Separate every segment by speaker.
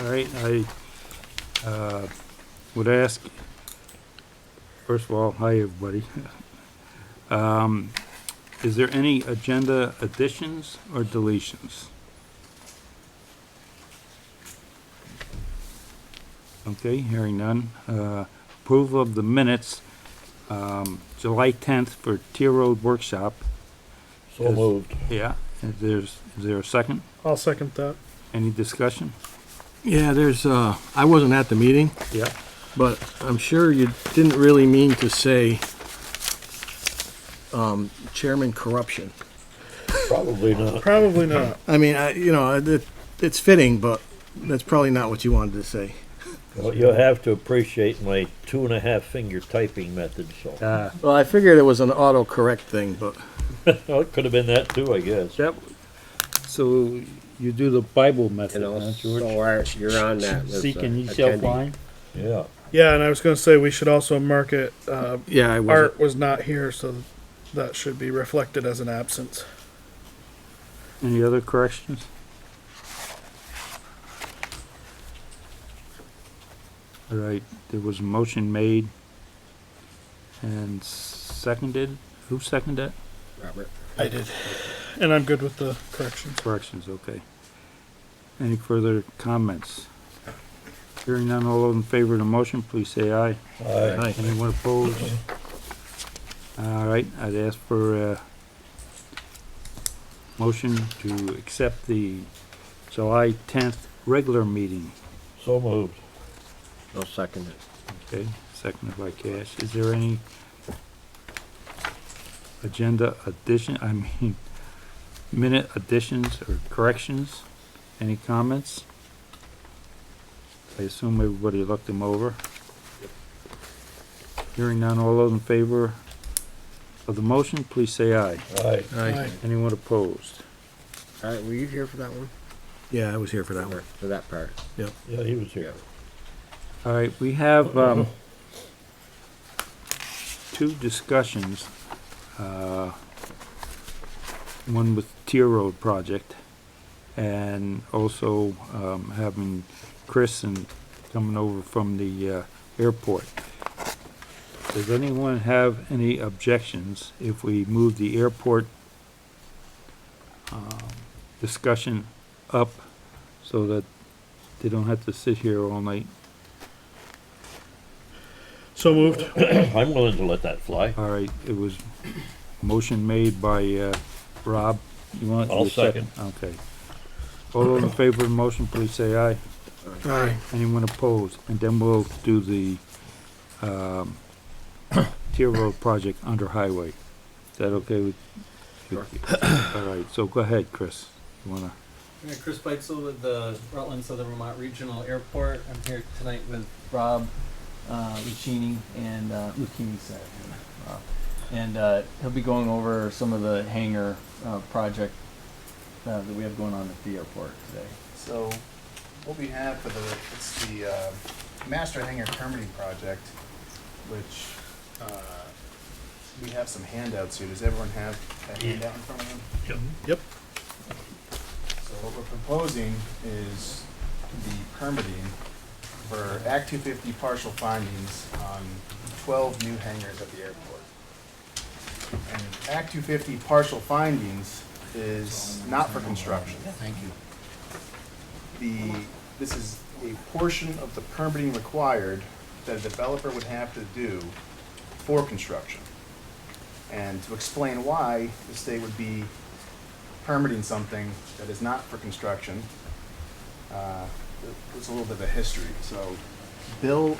Speaker 1: All right, I, uh, would ask, first of all, hi, everybody. Um, is there any agenda additions or deletions? Okay, hearing none. Uh, approval of the minutes, um, July tenth for Tier Road Workshop.
Speaker 2: So moved.
Speaker 1: Yeah, is there's, is there a second?
Speaker 3: I'll second that.
Speaker 1: Any discussion?
Speaker 2: Yeah, there's, uh, I wasn't at the meeting,
Speaker 1: Yeah.
Speaker 2: but I'm sure you didn't really mean to say, um, chairman corruption.
Speaker 4: Probably not.
Speaker 3: Probably not.
Speaker 2: I mean, I, you know, it, it's fitting, but that's probably not what you wanted to say.
Speaker 4: Well, you'll have to appreciate my two and a half finger typing method, so.
Speaker 1: Uh,
Speaker 2: Well, I figured it was an autocorrect thing, but
Speaker 4: Well, Oh, it could have been that too, I guess.
Speaker 1: That, so you do the Bible method,
Speaker 5: And
Speaker 1: huh,
Speaker 5: also,
Speaker 1: George?
Speaker 5: are- you're on that. list,
Speaker 1: Seek
Speaker 5: uh,
Speaker 1: and ye shall
Speaker 5: attendee.
Speaker 1: find.
Speaker 4: Yeah.
Speaker 3: Yeah, and I was gonna say we should also mark it, uh,
Speaker 2: yeah, I was
Speaker 3: Art was not here, so that should be reflected as an absence.
Speaker 1: Any other corrections? All right, there was a motion made and seconded. Who seconded it?
Speaker 5: Robert.
Speaker 3: I did. And I'm good with the corrections.
Speaker 1: Corrections, okay. Any further comments? Hearing none, all those in favor of the motion, please say aye.
Speaker 4: Aye.
Speaker 1: Anyone opposed? All right, I'd ask for a motion to accept the July tenth regular meeting.
Speaker 4: So moved.
Speaker 5: I'll second it.
Speaker 1: Okay, seconded by Cash. Is there any agenda addition, I mean, minute additions or corrections? Any comments? I assume everybody looked them over. Hearing none, all those in favor of the motion, please say aye.
Speaker 4: Aye.
Speaker 2: Aye.
Speaker 1: Anyone opposed?
Speaker 5: All right, were you here for that one?
Speaker 2: Yeah, I was here for that
Speaker 5: Or
Speaker 2: one.
Speaker 5: For that part?
Speaker 4: Yeah, he was here.
Speaker 1: All right, we have, um, two discussions, uh, one with Tier Road project, and also, um, having Chris and coming over from the, uh, airport. Does anyone have any objections if we move the airport, um, discussion up so that they don't have to sit here all night?
Speaker 3: So moved.
Speaker 4: I'm willing to let that fly.
Speaker 1: All right, it was motion made by, uh, Rob. You want?
Speaker 4: I'll
Speaker 1: you Okay. All those in favor of the motion, please say aye.
Speaker 2: Aye.
Speaker 1: Anyone opposed? And then we'll do the, um, tier road project under highway. Is that okay with? with- All right, so go ahead, Chris. You wanna,
Speaker 6: Yeah, Chris Beitzel with the Rutland Southern Vermont Regional Airport. I'm here tonight with Rob uh, Lucchini and uh, Lucchini, sorry. Rob. And uh, he'll be going over some of the hangar uh, project uh, that we have going on at the airport today.
Speaker 7: So what we have for the, it's the uh, master hangar permitting project, which uh, we have some handouts here. Does everyone have that handout in front of them?
Speaker 3: Yep.
Speaker 7: So what we're proposing is the permitting for Act 250 partial findings on 12 new hangars at the airport. And Act 250 partial findings is not for construction. Thank you. The, this is a portion of the permitting required that a developer would have to do for construction. And to explain why the state would be permitting something that is not for construction. Uh, It's a little bit of a history, so Bill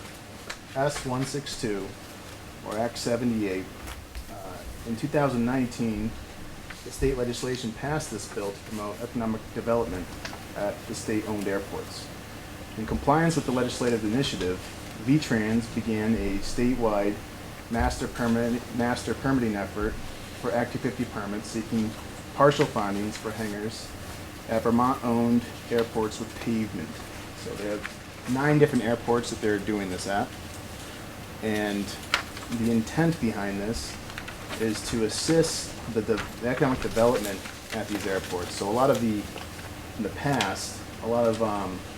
Speaker 7: S one six two, or Act seventy-eight, uh, in two thousand nineteen, the state legislation passed this bill to promote economic development at the state-owned airports. In compliance with the legislative initiative, V-Trans began a statewide master permit, master permitting effort for Act 250 permits seeking partial findings for hangars at Vermont-owned airports with pavement. So they have nine different airports that they're doing this at. And the intent behind this is to assist the, the economic development at these airports. So a lot of the, in the past, a lot of, um,